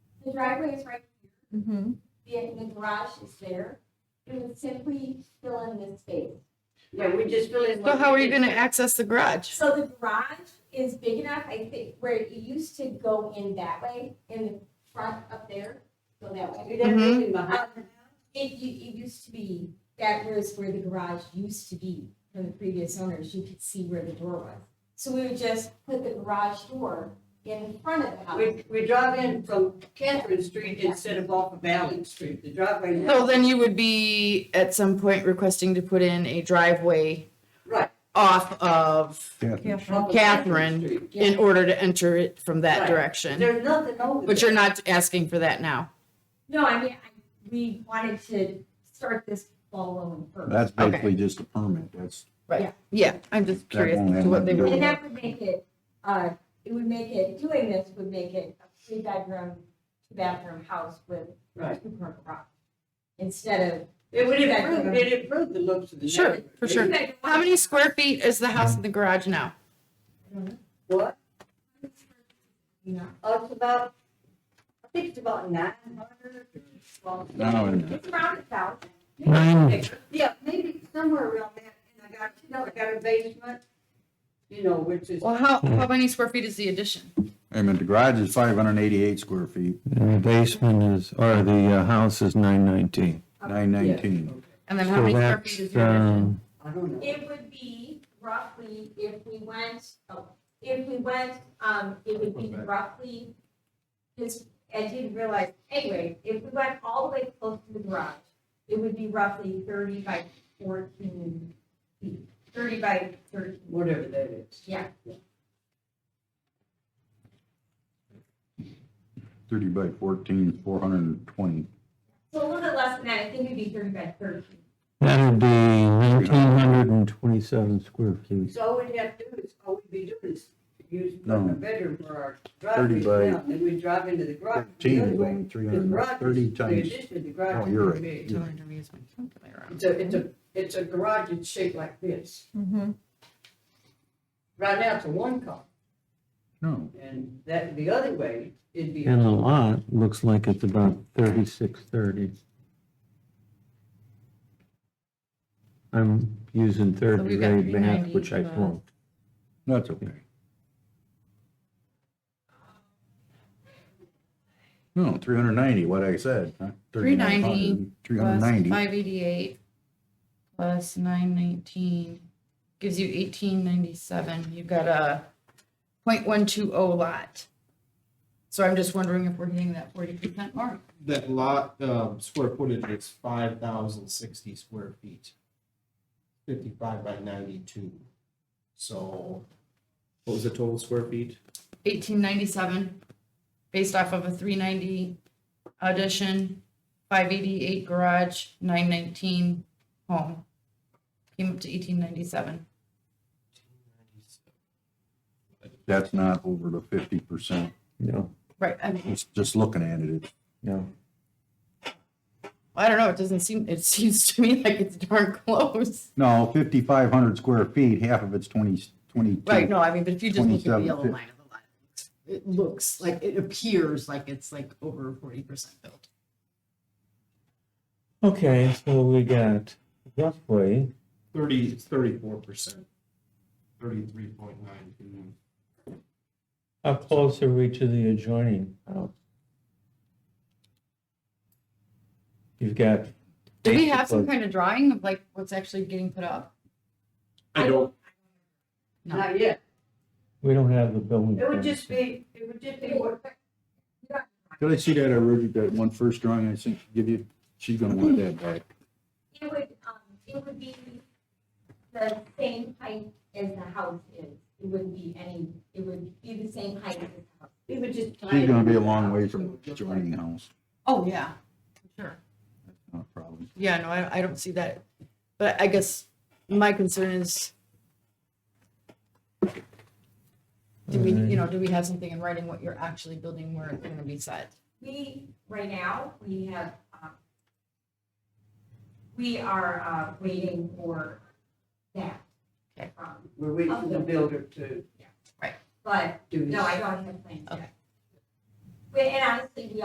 The driveway is right Mm-hmm. here, the, the garage is there. We would simply fill in this space. Yeah, we just fill in. So what how are we you can- gonna access the garage? So the garage is big enough, I think, where it used to go in that way, in the front up there, go that way. You didn't Mhm. leave him behind. It, u- it used to be, that was where the garage used to be from the previous owners, you could see where the door was. So we would just put the garage door in front of the house. We, we drive in from Catherine Street instead of off of Allen Street, the driveway. now- So then you would be at some point requesting to put in a driveway Right. off of, Yeah. off of Catherine. Street. in order to enter it from that Right. direction. There's nothing over. But you're there. not asking for that now. No, I mean, I, we wanted to start this ball rolling first. That's basically just a permit, that's, Yeah, I'm just curious won't as have to what they nothing to do would. And that would make it, uh, it would make it, doing this would make it a three bedroom, two bathroom house with Right. two per garage. Instead of. It would improve, it improved the looks of the Sure, neighborhood. for sure. How many square feet is the house in the garage now? What? You know, Oh, it's about, I think it's about nine hundred. No, it- it's around a thousand. Yeah, maybe somewhere around that, and I got, you know, I got a basement, you know, which is, Well, how, how many square feet is the addition? I mean, the garage is five hundred and eighty-eight square feet, And the basement is, or the uh, house is nine nineteen. nine nineteen. And then how So many square feet is that's, the addition? um, I don't know. It would be roughly, if we went, oh, if we went, um, it would be roughly, because I didn't realize, anyway, if we went all the way close to the garage, it would be roughly thirty by fourteen feet, thirty by thirteen. whatever that is. Yeah, Thirty by fourteen, four hundred and twenty. so a little bit less than that, I think it'd be thirty by thirteen. That'd be nineteen hundred and twenty-seven square feet. So all we'd have to do is, all we'd be doing is use No. a bedroom for our 30 driveways by now, then we drive into the garage. the Thirteen other is way. only three The hundred garage and is- thirty The times. addition, the garage. Oh, you're is right. big. Tell her to use my um, calculator. It's a, it's a, it's a garage that's shaped like this. Mhm. Right now, it's a one car, No, and that, the other way, it'd be, uh, And the lot looks like it's about thirty-six thirty. I'm using third So we've got uh, grade math, 390 which I for the- flunked. that's okay. No, three hundred and ninety, what I said. 390 Three hundred and Plus ninety, five eighty-eight plus nine nineteen gives you eighteen ninety-seven. You've got a point one two oh lot. So I'm just wondering if we're hitting that forty percent mark. That lot, um, square footage is five thousand sixty square feet. Fifty-five by ninety-two. So what was the total square feet? Eighteen ninety-seven, based off of a three ninety addition, five eighty-eight garage, nine nineteen home. Came up to eighteen ninety-seven. that's not over the fifty percent, No, Right, I mean, it's just looking at it, it's no. I don't know, it doesn't seem, it seems to me like it's darn close. No, fifty-five hundred square feet, half of it's twenty, twenty-two. Right, no, I mean, but if you just look at the 27, yellow fif- line of the lot, it looks like, it appears like it's like over forty percent built. Okay, so we got roughly Thirty, thirty-four percent. Thirty-three point nine two. How close are we to the adjoining house? You've got. Do we have some basically- kind of drawing of like what's actually getting put up? I don't, not yet. We don't have the building. It would permit. just be, it would just be what, Did I see that already, that one first drawing I sent, give you, she's gonna want that back. It would, um, it would be the same height as the house is. It wouldn't be any, it would be the same height as the house. it would just. She's gonna be a long way from joining the house, Oh, yeah. Sure. not a problem. Yeah, no, I, I don't see that. But I guess my concern is, do we, you know, do we have something in writing what you're actually building where it's gonna be set? We, right now, we have, um, we are, uh, waiting for that. Um, Okay. from- We're waiting for the builder to But, do this. no, I don't have plans Okay. yet. But, and honestly, we